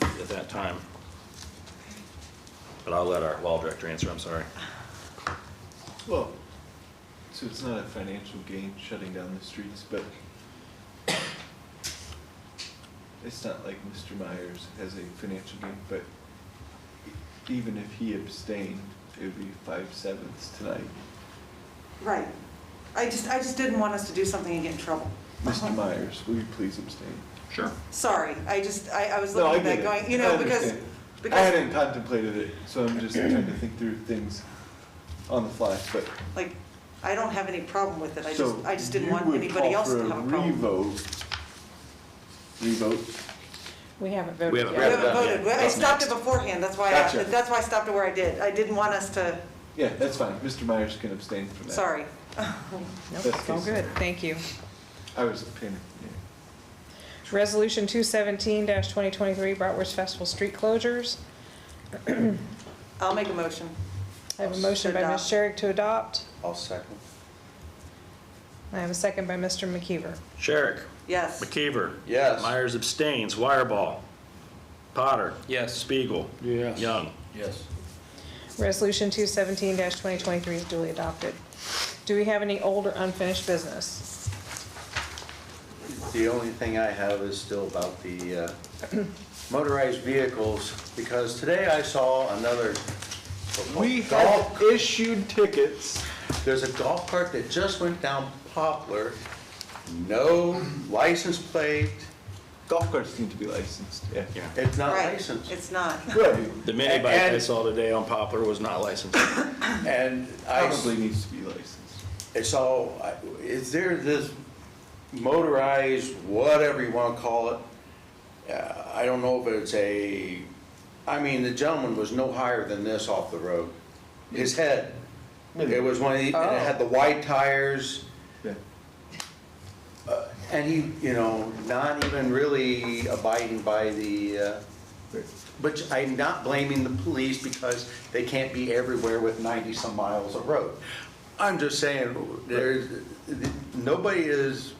that time. But I'll let our wall director answer, I'm sorry. Well, so it's not a financial gain shutting down the streets, but it's not like Mr. Myers has a financial gain, but even if he abstained, it would be five sevenths tonight. Right. I just, I just didn't want us to do something and get in trouble. Uh-huh. Mr. Myers, will you please abstain? Sure. Sorry, I just, I, I was No, I looking at get that it. going, you I know, because, understand. I because, hadn't contemplated it, so I'm just trying to think through things on the fly, but. like, I don't have any problem with it. I So just, I just didn't you want would anybody call else for to have a problem. Revote. Revote? We haven't We haven't voted We Yeah, yet. haven't that- voted. yeah, Well, I that's stopped it next. beforehand. That's why, Gotcha. I that's why I stopped it where I did. I didn't want us to, Yeah, that's fine. Mr. Myers can abstain from that. sorry. Nope, it's all good, thank you. I was pinning. Resolution two seventeen twenty twenty-three, Bratwurst Festival street closures. I'll make a motion. I have a motion by Ms. Adopt. Sherrick to adopt. I'll second. I have a second by Mr. McKeever. Sherrick, Yes. McKeever. Yes. Myers abstains, Wireball, Potter. Yes. Spiegel. Yes. Young. Yes. Resolution two seventeen twenty twenty-three is duly adopted. Do we have any old or unfinished business? The only thing I have is still about the uh, motorized vehicles, because today I saw another. We golf- have issued tickets. There's a golf cart that just went down Poplar, no license plate, Golf carts need to be licensed, yeah. Yeah. it's not Right. licensed. It's not. Right, The mini bike I And- saw today on Poplar was not licensed. And I s- probably needs to be licensed. I saw, I- is there this motorized, whatever you want to call it? Uh, I don't know if it's a, I mean, the gentleman was no higher than this off the road. His head, it was one, of the- and it had the wide tires. Yeah. And he, you know, not even really abiding by the, uh, but I'm not blaming the police because they can't be everywhere with 90-some miles of road. I'm just saying, there's, nobody is,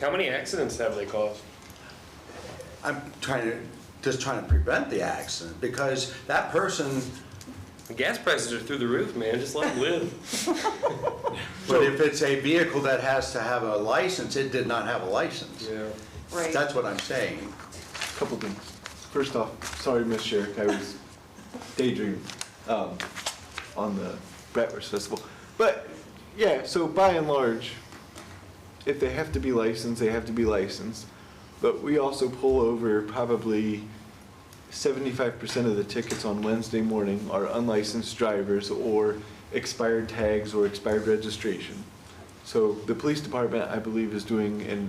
How many accidents have they caused? I'm trying to, just trying to prevent the accident because that person, The gas prices are through the roof, man. Just let them live. but if it's a vehicle that has to have a license, it did not have a license. Yeah. Right. That's what I'm saying. Couple things. First off, sorry, Miss Sherrick, I was daydreaming um, on the Bratwurst Festival. But, yeah, so by and large, if they have to be licensed, they have to be licensed. But we also pull over probably seventy-five percent of the tickets on Wednesday morning are unlicensed drivers or expired tags or expired registration. So the police department, I believe, is doing an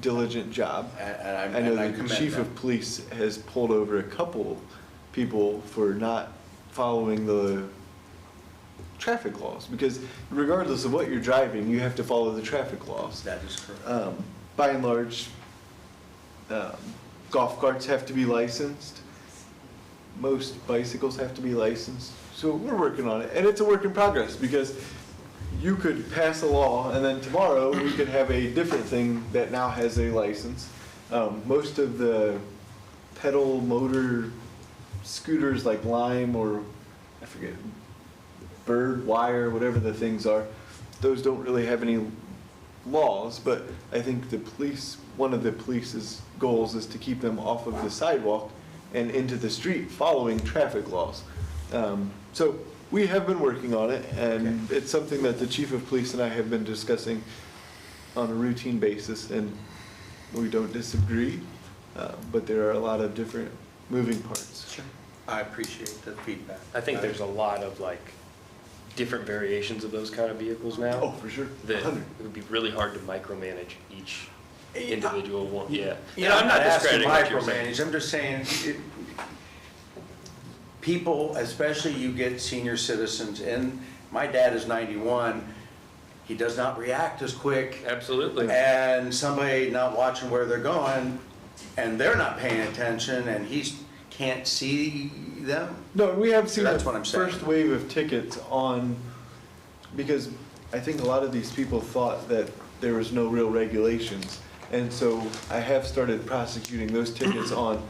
diligent job. And- and I'm- I know and I the commend chief them. of police has pulled over a couple people for not following the traffic laws, because regardless of what you're driving, you have to follow the traffic laws. That is correct. Um, By and large, um, golf carts have to be licensed, most bicycles have to be licensed, so we're working on it, and it's a work in progress, because you could pass a law, and then tomorrow, we could have a different thing that now has a license. Um, Most of the pedal motor scooters like Lime or, I forget, Bird Wire, whatever the things are, those don't really have any laws, but I think the police, one of the police's goals is to keep them off of the sidewalk and into the street following traffic laws. Um, So we have been working on it, and it's something that the chief of police and I have been discussing on a routine basis, and we don't disagree, uh, but there are a lot of different moving parts. I appreciate the feedback. I think there's a lot of like different variations of those kind of vehicles now. Oh, for sure. That it 100. would be really hard to micromanage each Yeah. individual one. Yeah. You And know, I'm not asking discrediting what you're saying. micromanage, I'm just saying, it- people, especially you get senior citizens, and my dad is 91, he does not react as quick, Absolutely. and somebody not watching where they're going, and they're not paying attention, and he's, can't see them. No, and we have seen That's the what I'm saying. first wave of tickets on, because I think a lot of these people thought that there was no real regulations. And so I have started prosecuting those tickets on